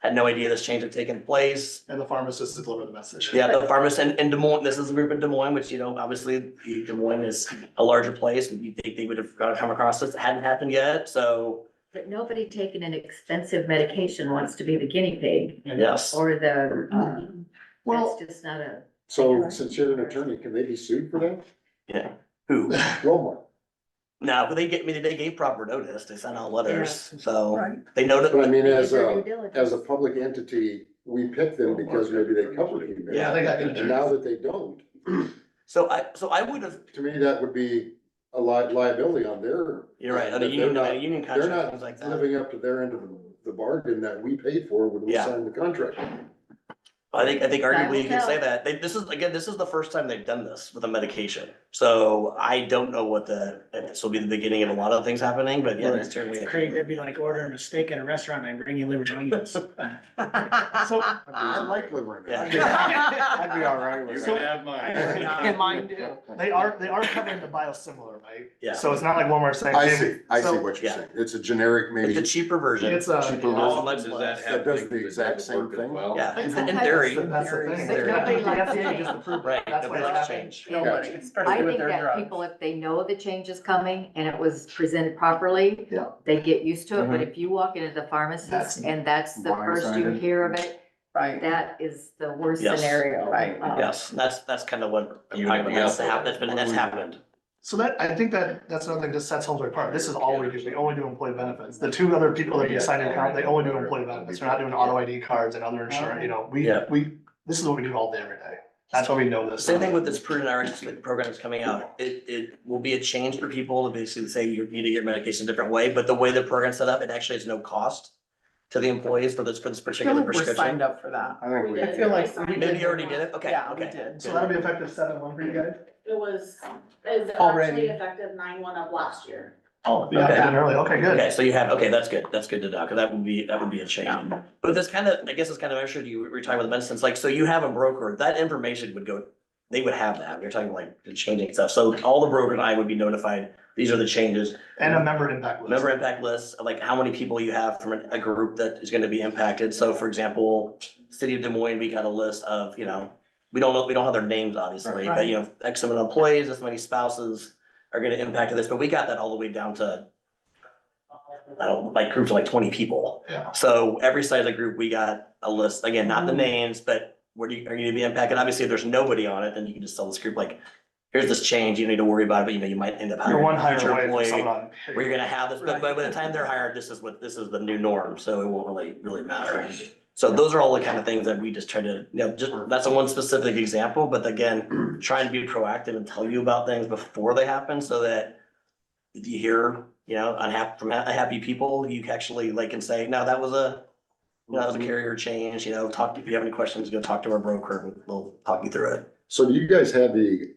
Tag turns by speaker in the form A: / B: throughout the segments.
A: Had no idea this change had taken place.
B: and the pharmacist to deliver the message.
A: Yeah, the pharmacist in, in Des Moines, this is a group in Des Moines, which, you know, obviously Des Moines is a larger place. and You think they would have come across this, it hadn't happened yet, so
C: But nobody taking an expensive medication wants to be the guinea pig
A: yes.
C: or the, um,
B: Well,
C: that's just not a,
D: So since you're an attorney, can they be sued for that?
A: Who?
D: Walmart.
A: No, but they get, I mean, they gave proper notice. They sent out letters, so
E: Right.
A: they know
D: But I
A: that,
D: mean,
C: They did
D: as
C: their
D: a,
C: due diligence.
D: as a public entity, we pick them because maybe they covered you.
B: Yeah, they got
D: And
B: injured.
D: now that they don't,
A: so I, so I would have,
D: to me, that would be a li- liability on their.
A: you're right, on a
D: that
A: union,
D: They're
A: on a
D: not,
A: union
D: they're
A: contract, things like
D: not
A: that.
D: living up to their end of the bargain that we paid for when we
A: Yeah.
D: signed the contract.
A: I think, I think
C: Time
A: arguably you
C: will
A: can say
C: tell.
A: that. They, this is, again, this is the first time they've done this with a medication. So I don't know what the, and this will be the beginning of a lot of things happening, but yeah, it's certainly.
E: It's crazy, it'd be like ordering a steak at a restaurant and bring you liver triangles.
B: so
D: I like living.
E: I'd be all right
B: You
E: with
B: can
E: that.
B: Mine they are, they are covering the biosimilar, right?
A: Yeah.
B: So it's not like Walmart saying.
D: I see, I see
B: So-
D: what you're
A: Yeah.
D: saying. It's a generic,
A: It's
D: maybe,
A: a cheaper version.
B: It's a.
D: Cheaper
B: it's
D: version.
A: much
F: Does
A: less.
F: that
D: That
F: have?
D: does
F: to
D: the
F: do with
D: exact
F: that
D: same
F: work as
D: thing.
F: well?
A: Yeah,
B: It's
A: in in
C: sometimes
A: theory.
B: That's the thing.
C: But nobody likes
B: The FDA
C: change.
B: just approved it.
A: Right,
B: That's why
A: nobody
B: it
A: likes
B: happened.
A: change.
B: Nobody.
E: Gotcha.
B: It's starting
C: I
B: with
C: think
B: their
C: that
B: drugs.
C: people, if they know the change is coming and it was presented properly,
B: Yeah.
C: they get used to it. But
A: Mhm.
C: if you walk into the
E: That's
C: pharmacist and that's the first you
E: blindsided.
C: hear of it,
E: Right.
C: that is the worst
A: Yes.
C: scenario.
E: Right.
C: Um,
A: Yes, that's, that's kind of what
F: You would have
A: has to
F: also-
A: happen, that's been, that's happened.
B: So that, I think that, that's another thing that sets Holmesway apart. This is all we do. We only do employee benefits. The two other people that we assigned an account, they only do employee benefits. They're not doing auto ID cards and other insurance, you know, we,
A: Yeah.
B: we, this is what we do all day, every day. That's why we know this.
A: Same thing with this prudent Rx program that's coming out. It, it will be a change for people to basically say you need to get your medication a different way, but the way the program's set up, it actually is no cost to the employees for this, for this particular prescription.
E: up for that.
D: I think we.
E: I feel like we did.
A: Maybe you already did it? Okay,
E: Yeah, we
A: okay.
E: did.
B: So that'll be effective seven one for you guys?
G: It was, is
E: Already.
G: actually effective nine one of last year.
B: Oh,
A: yeah.
B: yeah, early. Okay, good.
A: Okay, so you have, okay, that's good, that's good to know, because that would be, that would be a change. But this kind of, I guess it's kind of, I'm sure you were talking about the medicines, like, so you have a broker, that information would go, they would have that, you're talking like the changing stuff, so all the broker and I would be notified, these are the changes.
B: And a member impact list.
A: Member impact list, like how many people you have from a- a group that is gonna be impacted, so for example, City of Des Moines, we got a list of, you know, we don't know, we don't have their names, obviously, but you know, X amount of employees, this many spouses are gonna impact this, but we got that all the way down to I don't, like groups of like twenty people.
B: Yeah. Mm-hmm.
A: So every side of the group, we got a list, again, not the names, but what are you, are you gonna be impacted? Obviously, if there's nobody on it, then you can just tell this group like, here's this change, you don't need to worry about it, but you know, you might end up
B: You're
A: hiring
B: one
A: a
B: hire
A: future
B: away from
A: employee.
B: someone.
A: Where you're gonna have this, but by the time they're hired, this is what, this is the new norm, so it won't really, really matter. So those are all the kind of things that we just try to, you know, just, that's a one specific example, but again, trying to be proactive and tell you about things before they happen so that if you hear, you know, unhappy, from unhappy people, you actually like can say, no, that was a, that
D: Mm-hmm.
A: was a carrier change, you know, talk, if you have any questions, go talk to our broker and they'll talk you through it.
D: So do you guys have the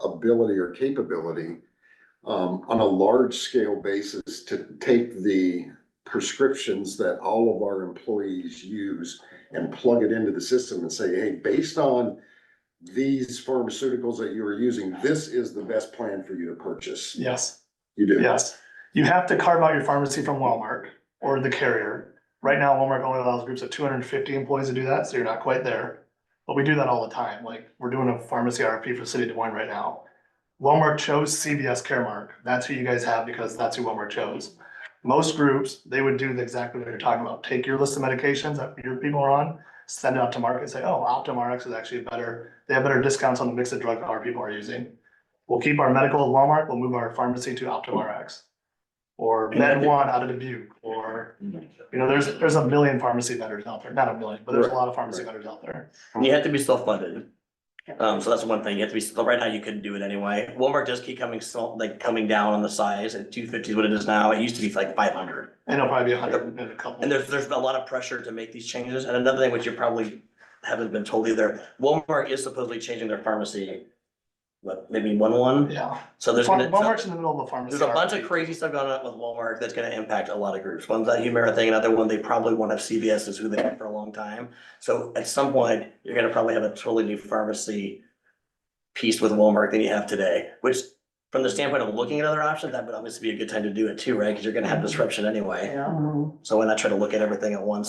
D: ability or capability um, on a large scale basis to take the prescriptions that all of our employees use and plug it into the system and say, hey, based on these pharmaceuticals that you are using, this is the best plan for you to purchase?
B: Yes.
D: You do?
B: Yes, you have to carve out your pharmacy from Walmart or the carrier. Right now, Walmart only allows groups of two hundred and fifty employees to do that, so you're not quite there. But we do that all the time, like, we're doing a pharmacy RFP for City of Des Moines right now. Walmart chose CVS Caremark, that's who you guys have because that's who Walmart chose. Most groups, they would do exactly what you're talking about, take your list of medications that your people are on, send it out to market, say, oh, Optum Rx is actually better, they have better discounts on the mix of drug our people are using. We'll keep our medical at Walmart, we'll move our pharmacy to Optum Rx. Or Med One out of Dubuque, or, you know, there's, there's a million pharmacy vendors out there, not a million, but there's a lot of pharmacy vendors out there.
A: And You have to be self-funded. Um, so that's one thing, you have to be, so right now you couldn't do it anyway. Walmart does keep coming, so- like, coming down on the size, and two fifty is what it is now, it used to be like five hundred.
B: And it'll probably be a hundred and a couple.
A: And there's, there's a lot of pressure to make these changes, and another thing which you probably haven't been told either, Walmart is supposedly changing their pharmacy. What, maybe one one,
B: Yeah,
A: so there's gonna,
B: Walmart's in the middle of a pharmacy.
A: there's a bunch of
B: RFP.
A: crazy stuff going on with Walmart that's gonna impact a lot of groups. One's that Humira thing, another one, they probably won't have CVS is who they have for a long time. So at some point, you're gonna probably have a totally new pharmacy piece with Walmart than you have today, which from the standpoint of looking at other options, that would obviously be a good time to do it too, right? Cause you're gonna have disruption anyway.
C: um,
E: Yeah.
A: So why not try to look at everything at once?